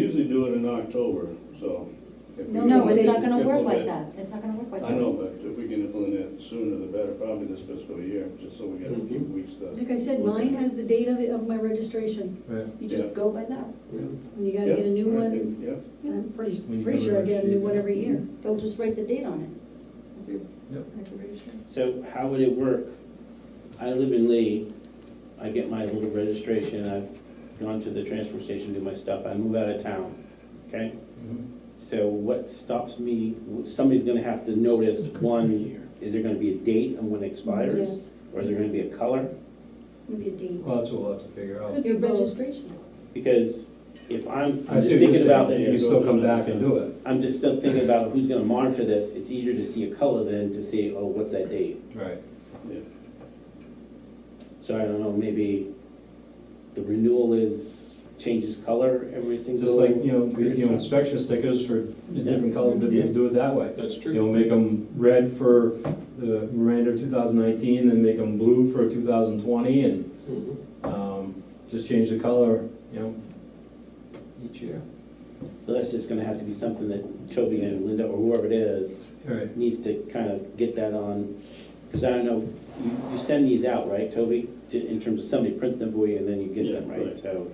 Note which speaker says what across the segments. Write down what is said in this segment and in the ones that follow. Speaker 1: do it in October, so. if we
Speaker 2: No,
Speaker 1: can
Speaker 2: it's not gonna work like
Speaker 1: implement-
Speaker 2: that, it's not gonna work like that.
Speaker 1: I know, but if we can implement it sooner the better, probably this fiscal year, just so we get
Speaker 3: Mm-hmm.
Speaker 1: a few weeks to.
Speaker 4: Like I said, mine has the date of, it- of my registration.
Speaker 2: You just
Speaker 1: Yeah.
Speaker 2: go by that,
Speaker 4: And you gotta
Speaker 1: Yeah,
Speaker 4: get a new
Speaker 1: I
Speaker 4: one,
Speaker 1: think- Yeah,
Speaker 4: I'm pretty,
Speaker 3: We
Speaker 4: pretty
Speaker 3: can
Speaker 4: sure I get a new
Speaker 3: negotiate
Speaker 4: one
Speaker 3: that.
Speaker 4: every year.
Speaker 2: they'll just write the date on it. of your-
Speaker 3: Yep.
Speaker 2: of your registration.
Speaker 5: So how would it work? I live in Lee, I get my little registration, I've gone to the transfer station, do my stuff, I move out of town, okay?
Speaker 3: Mm-hmm.
Speaker 5: So what stops me, somebody's gonna have to notice, one, is there gonna be a date on when it expires?
Speaker 4: Yes.
Speaker 5: Or is there gonna be a color?
Speaker 2: It's gonna be a date.
Speaker 3: Well, that's what we'll have to figure out.
Speaker 4: Could be
Speaker 2: Your
Speaker 4: both.
Speaker 2: registration.
Speaker 5: Because if I'm,
Speaker 3: I
Speaker 5: I'm just
Speaker 3: see what you're
Speaker 5: thinking about.
Speaker 3: saying. You can still come back and do it.
Speaker 5: I'm just still thinking about who's gonna monitor this, it's easier to see a color than to see, oh, what's that date?
Speaker 3: Right.
Speaker 1: yeah.
Speaker 5: So I don't know, maybe the renewal is, changes color every single.
Speaker 3: Just like, you know, we- you know, inspection stickers for the different colors, but you can do it that way.
Speaker 6: That's
Speaker 3: You
Speaker 6: true.
Speaker 3: know, make them red for the Miranda 2019, then make them blue for 2020, and
Speaker 6: Mhm.
Speaker 3: um, just change the color, you know, each year.
Speaker 5: But That's just gonna have to be something that Toby and Linda or whoever it is
Speaker 3: All right.
Speaker 5: needs to kind of get that on. Because I don't know, you, you send these out, right, Toby? To, in terms of somebody prints them for you and then you get them,
Speaker 1: Yeah,
Speaker 5: right?
Speaker 1: right.
Speaker 5: So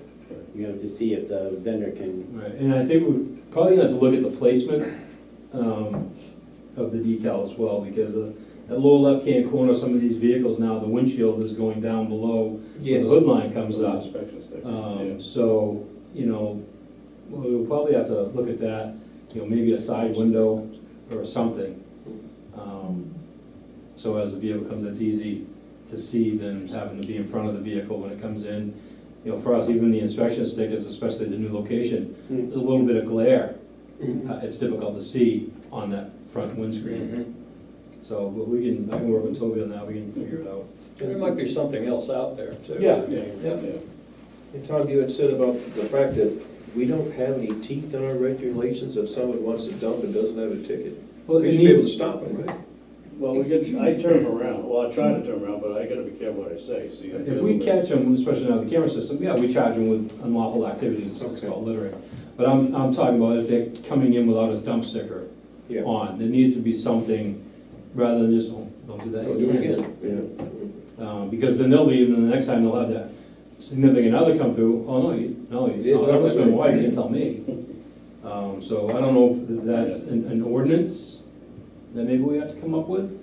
Speaker 5: you have to see if the vendor can,
Speaker 3: Right, and I think we're probably gonna have to look at the placement um, of the decal as well, because uh, that lower left-hand corner, of some of these vehicles now, the windshield is going down below where the hood line comes up.
Speaker 1: Inspection sticker, yeah.
Speaker 3: Um, So, you know, we'll we'll probably have to look at that, you know, maybe a side window or something. Um, So as the vehicle comes, it's easy to see than having to be in front of the vehicle when it comes in. You know, for us, even the inspection stickers, especially the new location, there's a little bit of glare.
Speaker 7: Mm-hmm.
Speaker 3: Uh, It's difficult to see on that front windscreen. So, but we can, I can work with Toby on that, we can figure it out.
Speaker 6: There might be something else out there, too.
Speaker 3: Yeah.
Speaker 1: Yeah,
Speaker 3: Yeah.
Speaker 1: yeah.
Speaker 7: And Tom, you had said about the fact that we don't have any teeth in our regulations if someone wants to dump and doesn't have a ticket.
Speaker 3: Well,
Speaker 7: We
Speaker 3: and
Speaker 7: should be
Speaker 3: you-
Speaker 7: able to stop them, right?
Speaker 1: Well, we get, I turn 'em around, well, I try to turn 'em around, but I gotta be careful what I say, see. I get
Speaker 3: If
Speaker 1: a
Speaker 3: we
Speaker 1: little
Speaker 3: catch them, especially now with the camera system, yeah, we charge them with unlawful activities, it's called littering. But I'm, I'm talking about if they're coming in without a dump sticker
Speaker 7: Yeah.
Speaker 3: on, there needs to be something, rather than just, oh, don't do that.
Speaker 7: Don't do it again,
Speaker 3: Uh, because then they'll leave, and the next time they'll have that significant other come through, oh, no, you, no,
Speaker 7: You
Speaker 3: you,
Speaker 7: didn't
Speaker 3: oh,
Speaker 7: tell
Speaker 3: that was my
Speaker 7: me."
Speaker 3: wife, you didn't tell me. Um, so I don't know if that's an, an ordinance that maybe we have to come up with.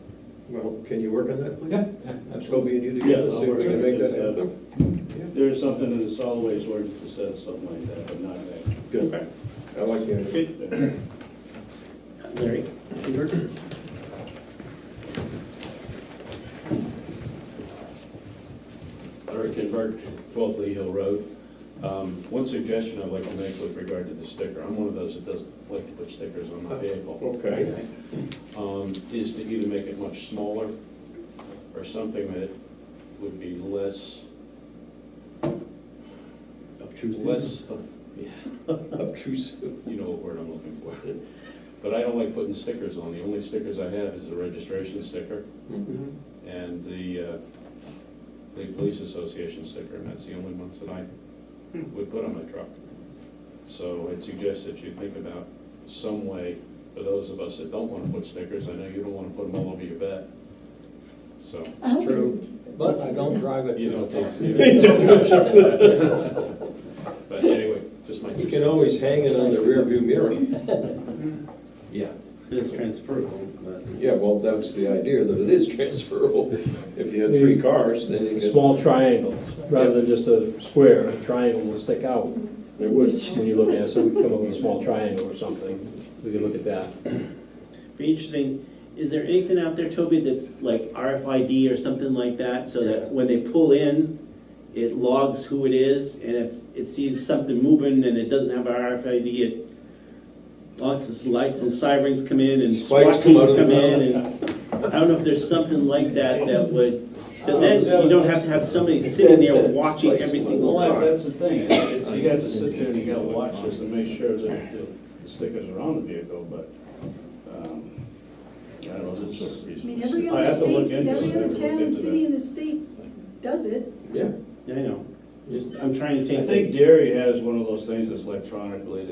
Speaker 7: yeah. Well, can you work on that, please?
Speaker 3: Yeah, yeah,
Speaker 7: Toby and you
Speaker 1: Yeah,
Speaker 7: together,
Speaker 1: I'll
Speaker 7: see if
Speaker 1: work
Speaker 7: we
Speaker 1: on
Speaker 7: can
Speaker 1: it.
Speaker 7: make that happen?
Speaker 1: There's something in the solid waste ordinance that says something like that, but not that.
Speaker 7: Good. I like the idea.
Speaker 5: Larry? Peter?
Speaker 8: Larry Kinberg, 12 Lee Hill Road. Um, One suggestion I'd like to make with regard to the sticker, I'm one of those that doesn't like to put stickers on my vehicle,
Speaker 7: Okay.
Speaker 8: um, is to either make it much smaller or something that would be less,
Speaker 5: Obtrusive.
Speaker 8: less, of- yeah,
Speaker 7: Obtrusive.
Speaker 8: you know what word I'm looking for. But I don't like putting stickers on. The only stickers I have is a registration sticker
Speaker 6: Mm-hmm.
Speaker 8: and the uh, Lee Police Association sticker, and that's the only ones that I would put on my truck. So I'd suggest that you think about some way, for those of us that don't want to put stickers, I know you don't want to put them all over your bed, so.
Speaker 2: I hope it
Speaker 6: True.
Speaker 2: isn't taken.
Speaker 6: But I don't drive it
Speaker 8: you
Speaker 6: to the
Speaker 8: don't
Speaker 6: top.
Speaker 8: take- you don't- But anyway, just my.
Speaker 7: You
Speaker 8: two
Speaker 7: can
Speaker 8: cents.
Speaker 7: always hang it on the rearview mirror.
Speaker 8: Yeah.
Speaker 5: It's transferable, but.
Speaker 7: Yeah, well, that's the idea, that it is transferable. If you have three cars, then you
Speaker 3: a
Speaker 7: can.
Speaker 3: small triangle, rather than just a square, a triangle will stick out
Speaker 7: There would.
Speaker 3: when you look at it, so we can come up with a small triangle or something, we can look at that.
Speaker 5: Be interesting, is there anything out there, Toby, that's like RFID or something like that, so that when they pull in, it logs who it is, and if it sees something moving and it doesn't have RFID, it lots of lights and sirens come in and SWAT
Speaker 7: Spikes come
Speaker 5: teams
Speaker 7: out of
Speaker 5: come
Speaker 7: the
Speaker 5: in, and I don't know if there's something like that that would, so then you don't have to have somebody sitting there watching every single
Speaker 1: Well,
Speaker 5: car.
Speaker 1: that's the thing, it's, you have to sit there and you gotta watch this and make sure that the the stickers are on the vehicle, but, um, I don't know, it's.
Speaker 4: I mean, every
Speaker 1: I
Speaker 4: other
Speaker 1: have to look
Speaker 4: state,
Speaker 1: into it.
Speaker 4: every
Speaker 1: I
Speaker 4: other
Speaker 1: haven't
Speaker 4: town
Speaker 1: looked
Speaker 4: and
Speaker 1: into
Speaker 4: city
Speaker 1: that.
Speaker 4: in the state does it.
Speaker 7: Yeah.
Speaker 5: I know, just, I'm trying to take.
Speaker 1: I
Speaker 5: the-
Speaker 1: think Derry has one of those things that's electronically,